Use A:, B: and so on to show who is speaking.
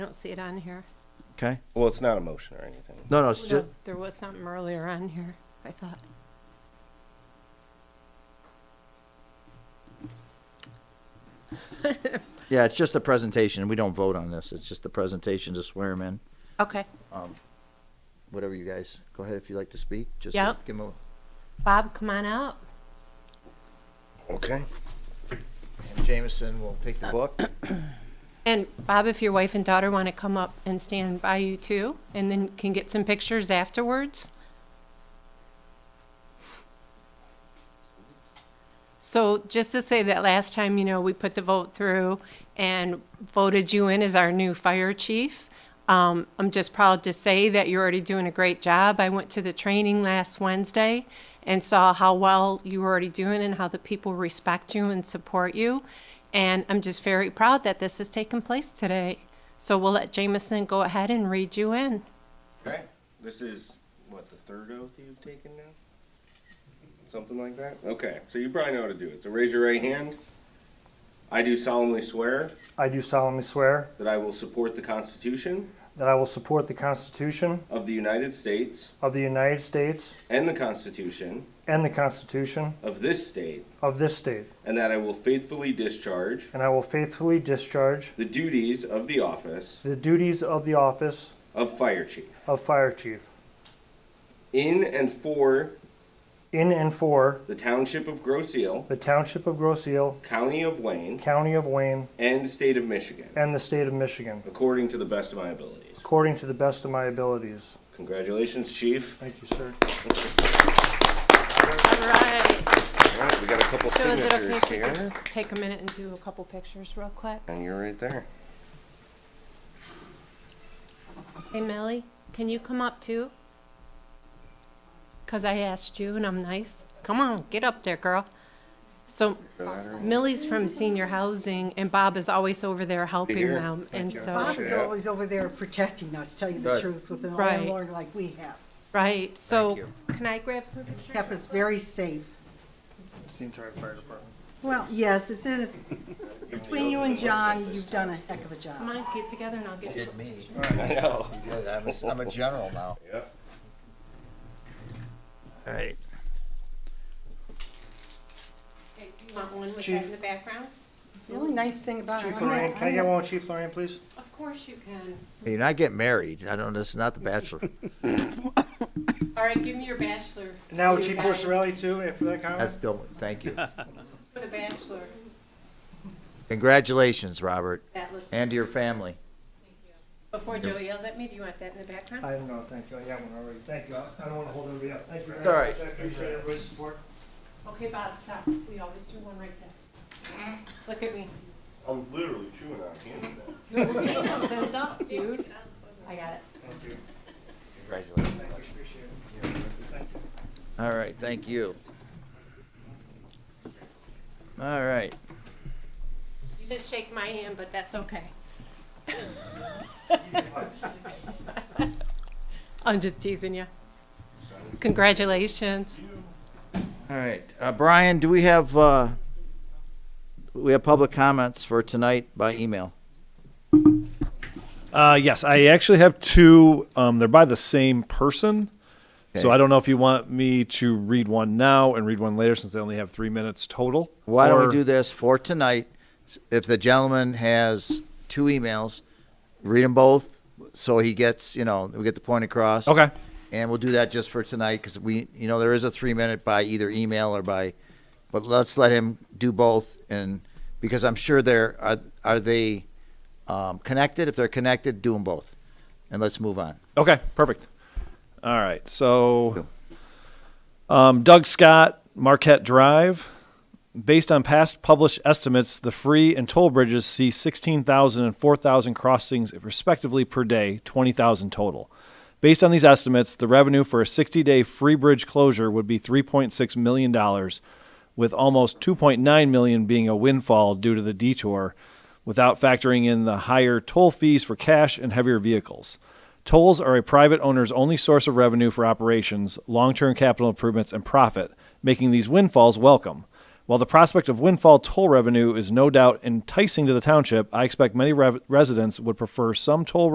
A: I don't see it on here.
B: Okay.
C: Well, it's not a motion or anything.
B: No, no, it's
A: No,
B: just,
A: There was something earlier on here, I thought.
B: yeah, it's just a presentation. We don't vote on this. It's just the presentation to swear him in.
A: Okay.
B: Whatever you guys, go ahead if you'd like to speak. Just
A: Yep.
B: give 'em a-
A: Bob, come on up.
C: Okay.
B: and Jameson will take the book.
A: And Bob, if your wife and daughter want to come up and stand by you too, and then can get some pictures afterwards. So just to say that last time, you know, we put the vote through and voted you in as our new fire chief. Um, I'm just proud to say that you're already doing a great job. I went to the training last Wednesday and saw how well you were already doing and how the people respect you and support you. And I'm just very proud that this has taken place today. So we'll let Jameson go ahead and read you in.
C: Okay. This is what the third oath you've taken now. Something like that. Okay. So you probably know how to do it. So raise your right hand. I do solemnly swear
D: I do solemnly swear
C: that I will support the Constitution
D: that I will support the Constitution
C: of the United States
D: of the United States
C: and the Constitution
D: and the Constitution
C: of this state,
D: of this state,
C: and that I will faithfully discharge
D: and I will faithfully discharge
C: the duties of the office
D: the duties of the office
C: of fire chief
D: of Fire Chief
C: in and for
D: in and for
C: the township of Groseal,
D: the Township of Groseal,
C: county of Wayne,
D: County of Wayne,
C: and state of Michigan,
D: and the state of Michigan,
C: according to the best of my abilities.
D: according to the best of my abilities.
C: Congratulations, Chief.
D: Thank you, sir.
A: All right.
C: All right, we got a couple
A: So is it okay
C: signatures
A: if we
C: here.
A: just take a minute and do a couple pictures real quick?
C: And you're right there.
A: Hey, Millie, can you come up too? Because I asked you and I'm nice. Come on, get up there, girl. So Millie's from senior housing and Bob is always over there helping
C: here.
A: them. And so,
E: Bob is always over there protecting us, tell you the
B: Right.
E: truth, with an
A: Oh, Right.
E: landlord like we have.
A: right, so
B: you.
A: can I grab some pictures?
E: Kept us very safe.
D: It's the entire fire department.
E: Well, yes, it's in, it's, between you and John, you've done a heck of a
A: Come
E: job.
A: on, get together and I'll get it.
B: Did me.
C: I know.
B: You did. I'm a, I'm a general now.
C: Yep.
B: All right.
A: Hey, do you want one with that in the background?
E: The only nice thing about it,
D: Chief
E: I'm not-
D: Lorraine, can I get one with Chief Lorraine, please?
A: Of course you can.
B: You're not getting married. I don't, this is not the bachelor.
A: All right, give me your bachelor.
D: Now
A: You
D: Chief
A: guys.
D: Corsorelli too, after that
B: That's
D: comment?
B: don't, thank you.
A: For the bachelor,
B: Congratulations, Robert,
A: that looks,
B: and to your family.
A: before Joe yells at me, do you want that in the background?
D: I don't know, thank you, I got one already, thank you, I I don't want to hold everybody up, thank you.
B: It's
D: very
B: all right.
D: much. I appreciate everybody's support.
A: Okay, Bob, stop. We always do one right there. Look at me.
C: I'm literally chewing on candy. now.
A: Send up, dude. I got it.
D: Thank you.
B: Congratulations.
D: Thank you, appreciate it.
B: All right, thank you. All right.
A: You didn't shake my hand, but that's okay. I'm just teasing you. Congratulations.
B: All right, uh, Brian, do we have, uh, we have public comments for tonight by email?
F: Uh, yes, I actually have two. Um, they're by the same person.
B: Okay.
F: So I don't know if you want me to read one now and read one later since they only have three minutes total.
B: Why don't
F: Or-
B: we do this for tonight? If the gentleman has two emails, read them both, so he gets, you know, we get the point across.
F: Okay.
B: And we'll do that just for tonight, because we, you know, there is a three-minute by either email or by, but let's let him do both, and, because I'm sure they're, are, are they um, connected? If they're connected, do them both, and let's move on.
F: Okay, perfect. All right. So um, Doug Scott, Marquette Drive. Based on past published estimates, the free and toll bridges see 16,000 and 4,000 crossings respectively per day, 20,000 total. Based on these estimates, the revenue for a 60 day free bridge closure would be $3.6 million, with almost 2.9 million being a windfall due to the detour, without factoring in the higher toll fees for cash and heavier vehicles. Tolls are a private owner's only source of revenue for operations, long term capital improvements, and profit, making these windfalls welcome. While the prospect of windfall toll revenue is no doubt enticing to the township, I expect many rev- residents would prefer some toll